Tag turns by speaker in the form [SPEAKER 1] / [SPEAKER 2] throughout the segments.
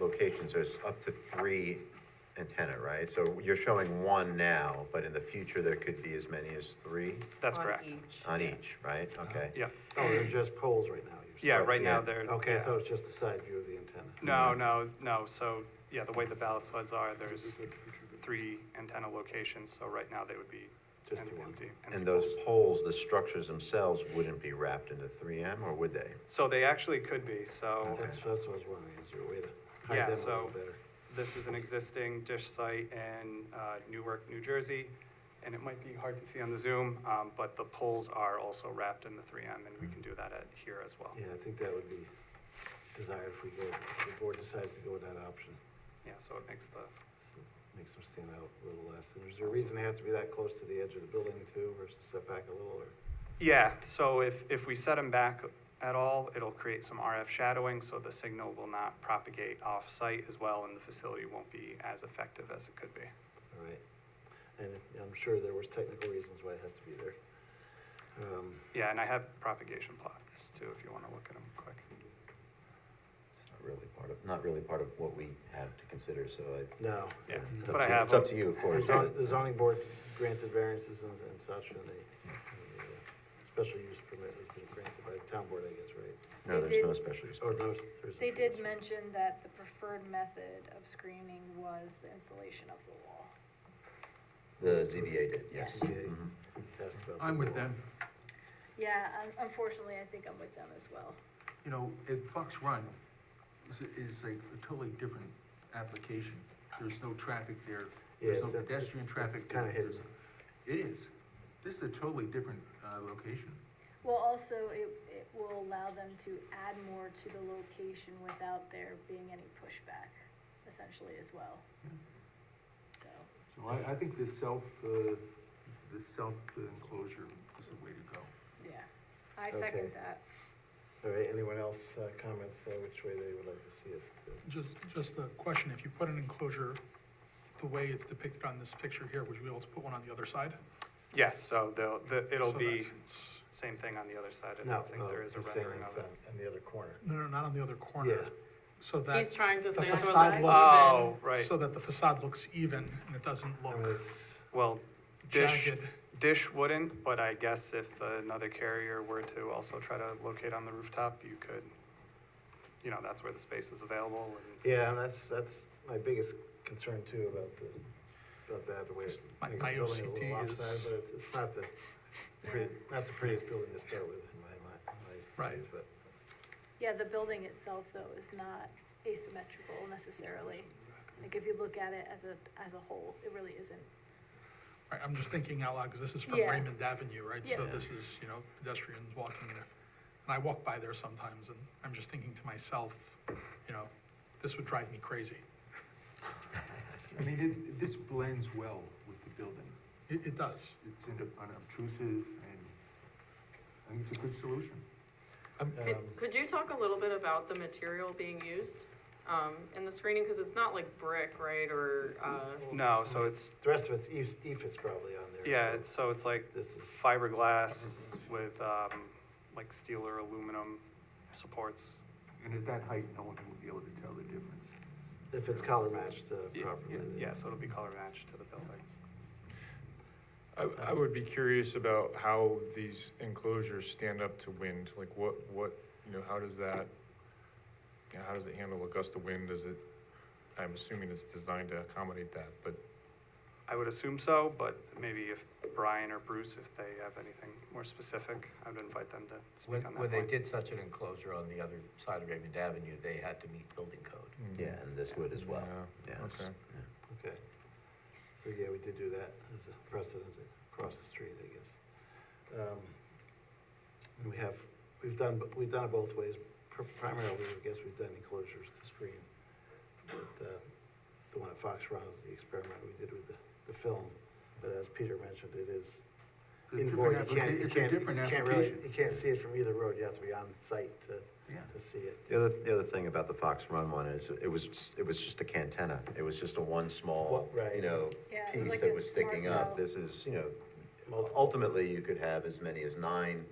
[SPEAKER 1] locations, there's up to three antenna, right? So you're showing one now, but in the future, there could be as many as three
[SPEAKER 2] That's
[SPEAKER 3] on
[SPEAKER 2] correct.
[SPEAKER 3] each.
[SPEAKER 1] on each, right? Okay.
[SPEAKER 2] Yeah,
[SPEAKER 4] Oh, they're just poles right now, you're saying?
[SPEAKER 2] yeah, right
[SPEAKER 1] Yeah.
[SPEAKER 2] now they're.
[SPEAKER 4] Okay, I
[SPEAKER 2] yeah.
[SPEAKER 4] thought it was just the side view of the antenna.
[SPEAKER 2] No, no, no, so, yeah, the way the ballast sleds are, there's three antenna locations, so right now they would be
[SPEAKER 4] Just
[SPEAKER 2] em-
[SPEAKER 4] the one.
[SPEAKER 2] empty. empty
[SPEAKER 1] And those poles,
[SPEAKER 2] poles.
[SPEAKER 1] the structures themselves wouldn't be wrapped into three M, or would they?
[SPEAKER 2] So they actually could be, so
[SPEAKER 4] That's, that's what I was wondering, is there a way to
[SPEAKER 2] Yeah,
[SPEAKER 4] hide them a
[SPEAKER 2] so-
[SPEAKER 4] little better?
[SPEAKER 2] this is an existing dish site in uh, Newark, New Jersey, and it might be hard to see on the Zoom, um, but the poles are also wrapped in the three M, and we can do that at here as well.
[SPEAKER 4] Yeah, I think that would be desired if we go, if the board decides to go with that option.
[SPEAKER 2] Yeah, so it makes the,
[SPEAKER 4] Makes them stand out a little less. And is there a reason they have to be that close to the edge of the building too, versus set back a little, or?
[SPEAKER 2] yeah, so if, if we set them back at all, it'll create some RF shadowing, so the signal will not propagate off-site as well, and the facility won't be as effective as it could be.
[SPEAKER 4] All right. And I'm sure there was technical reasons why it has to be there. Um,
[SPEAKER 2] Yeah, and I have propagation plots too, if you want to look at them quick.
[SPEAKER 1] It's not really part of, not really part of what we have to consider, so I.
[SPEAKER 4] No.
[SPEAKER 2] Yeah,
[SPEAKER 4] it's
[SPEAKER 1] it's
[SPEAKER 4] up
[SPEAKER 2] but I
[SPEAKER 1] up to- It's
[SPEAKER 2] have
[SPEAKER 4] to-
[SPEAKER 1] up
[SPEAKER 2] them.
[SPEAKER 1] to you, of
[SPEAKER 4] The
[SPEAKER 1] course.
[SPEAKER 4] zon-
[SPEAKER 1] but-
[SPEAKER 4] the zoning board granted variances and and such, and they, and the, uh, special use permit has been granted by the town board, I guess, right?
[SPEAKER 1] No,
[SPEAKER 3] They
[SPEAKER 1] there's no
[SPEAKER 3] did-
[SPEAKER 1] special use.
[SPEAKER 4] Or no, there's. a-
[SPEAKER 3] They did mention that the preferred method of screening was the installation of the wall.
[SPEAKER 1] The ZBA did, yes.
[SPEAKER 4] ZBA
[SPEAKER 1] Mhm.
[SPEAKER 4] asked about the
[SPEAKER 5] I'm with
[SPEAKER 4] wall.
[SPEAKER 5] them,
[SPEAKER 3] Yeah, un- unfortunately, I think I'm with them as well.
[SPEAKER 5] you know, at Fox Run is, is a totally different application. There's no traffic there,
[SPEAKER 4] Yeah,
[SPEAKER 5] there's no
[SPEAKER 4] it's- it's-
[SPEAKER 5] pedestrian
[SPEAKER 4] it's
[SPEAKER 5] traffic. there.
[SPEAKER 4] kinda hidden.
[SPEAKER 5] There's- It is, this is a totally different, uh, location.
[SPEAKER 3] Well, also, it, it will allow them to add more to the location without there being any pushback, essentially, as well. So,
[SPEAKER 5] So I, I think this self, uh, this self enclosure is the way to go.
[SPEAKER 3] yeah, I
[SPEAKER 4] Okay.
[SPEAKER 3] second that.
[SPEAKER 4] All right, anyone else, uh, comments, uh, which way they would like to see it?
[SPEAKER 6] Just, just a question, if you put an enclosure the way it's depicted on this picture here, would you be able to put one on the other side?
[SPEAKER 2] Yes, so they'll, the, it'll
[SPEAKER 6] So
[SPEAKER 2] be
[SPEAKER 6] that it's-
[SPEAKER 2] same thing on the other side, I
[SPEAKER 4] No,
[SPEAKER 2] don't think
[SPEAKER 4] no,
[SPEAKER 2] there is a
[SPEAKER 4] he's saying
[SPEAKER 2] rendering
[SPEAKER 4] it's
[SPEAKER 2] of it.
[SPEAKER 4] on- In the other corner.
[SPEAKER 6] No, no, not on the other corner.
[SPEAKER 4] Yeah.
[SPEAKER 6] So
[SPEAKER 7] He's
[SPEAKER 6] that,
[SPEAKER 7] trying to
[SPEAKER 6] the
[SPEAKER 7] say. it wasn't
[SPEAKER 6] facade looks-
[SPEAKER 7] even-
[SPEAKER 2] Oh, right,
[SPEAKER 6] so that the facade looks even and it doesn't
[SPEAKER 4] I mean,
[SPEAKER 6] look
[SPEAKER 4] it's-
[SPEAKER 2] well, dish,
[SPEAKER 6] jagged.
[SPEAKER 2] dish wouldn't, but I guess if another carrier were to also try to locate on the rooftop, you could, you know, that's where the space is available and,
[SPEAKER 4] Yeah, and that's, that's my biggest concern too about the, about that, the way. it
[SPEAKER 6] My-
[SPEAKER 4] makes
[SPEAKER 6] my
[SPEAKER 4] the building a
[SPEAKER 6] OCD
[SPEAKER 4] little lopsided,
[SPEAKER 6] is-
[SPEAKER 4] But it's, it's not the, pretty- not the prettiest building to start with in my mind, my.
[SPEAKER 6] Right.
[SPEAKER 4] view, But,
[SPEAKER 3] Yeah, the building itself, though, is not asymmetrical necessarily. Like, if you look at it as a, as a whole, it really isn't.
[SPEAKER 6] Right, I'm just thinking out loud, because this is from
[SPEAKER 3] Yeah.
[SPEAKER 6] Raymond Avenue, right? So
[SPEAKER 3] Yeah.
[SPEAKER 6] this is, you know, pedestrians walking there. And I walk by there sometimes and I'm just thinking to myself, you know, this would drive me crazy.
[SPEAKER 5] I mean, it, this blends well with the building.
[SPEAKER 6] It, it does.
[SPEAKER 5] It's in- unobtrusive and I think it's a good solution.
[SPEAKER 4] um,
[SPEAKER 7] Could, could you talk a little bit about the material being used, um, in the screening, because it's not like brick, right, or, uh,
[SPEAKER 2] no, so it's,
[SPEAKER 4] The rest of it's E Eve's, Eve is probably on there.
[SPEAKER 2] yeah,
[SPEAKER 4] so
[SPEAKER 2] it's, so it's like
[SPEAKER 4] This is,
[SPEAKER 2] fiberglass with, um, like steel or aluminum supports.
[SPEAKER 5] And at that height, no one will be able to tell the difference.
[SPEAKER 4] if it's color matched uh,
[SPEAKER 2] Yeah,
[SPEAKER 4] properly. then-
[SPEAKER 2] Yeah, so it'll be color matched to the building.
[SPEAKER 8] I, I would be curious about how these enclosures stand up to wind, like what, what, you know, how does that, you know, how does it handle a gust of wind, is it, I'm assuming it's designed to accommodate that, but
[SPEAKER 2] I would assume so, but maybe if Brian or Bruce, if they have anything more specific, I would invite them to
[SPEAKER 9] When,
[SPEAKER 2] speak on
[SPEAKER 9] when
[SPEAKER 2] that
[SPEAKER 9] they
[SPEAKER 2] point.
[SPEAKER 9] did such an enclosure on the other side of Raymond Avenue, they had to meet building code.
[SPEAKER 1] Yeah, and this would as well.
[SPEAKER 8] Yeah,
[SPEAKER 1] Yes.
[SPEAKER 8] okay.
[SPEAKER 4] Okay. So, yeah, we did do that as a precedent across the street, I guess. Um, And we have, we've done, we've done it both ways. Pr- Primarily, I guess we've done enclosures to screen. But uh, the one at Fox Run is the experiment we did with the, the film. But as Peter mentioned, it is
[SPEAKER 5] It's a different
[SPEAKER 4] inboard. You
[SPEAKER 5] applica-
[SPEAKER 4] can't, you
[SPEAKER 5] It's a
[SPEAKER 4] can't,
[SPEAKER 5] different
[SPEAKER 4] you can't really,
[SPEAKER 5] application.
[SPEAKER 4] you can't see it from either road. You have to be on site to,
[SPEAKER 5] Yeah.
[SPEAKER 4] to see it.
[SPEAKER 1] The other, the other thing about the Fox Run one is, it was, it was just a cantenna, it was just a one small,
[SPEAKER 4] Well, right.
[SPEAKER 1] you know,
[SPEAKER 3] Yeah, it was
[SPEAKER 1] piece
[SPEAKER 3] like
[SPEAKER 1] that
[SPEAKER 3] a
[SPEAKER 1] was
[SPEAKER 3] small
[SPEAKER 1] sticking up,
[SPEAKER 3] cell.
[SPEAKER 1] this is, you know,
[SPEAKER 4] Multiple.
[SPEAKER 1] ultimately, you could have as many as nine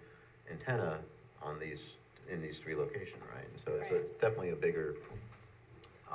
[SPEAKER 1] antenna on these, in these three locations, right? And So it's a-
[SPEAKER 3] Right.
[SPEAKER 1] definitely a bigger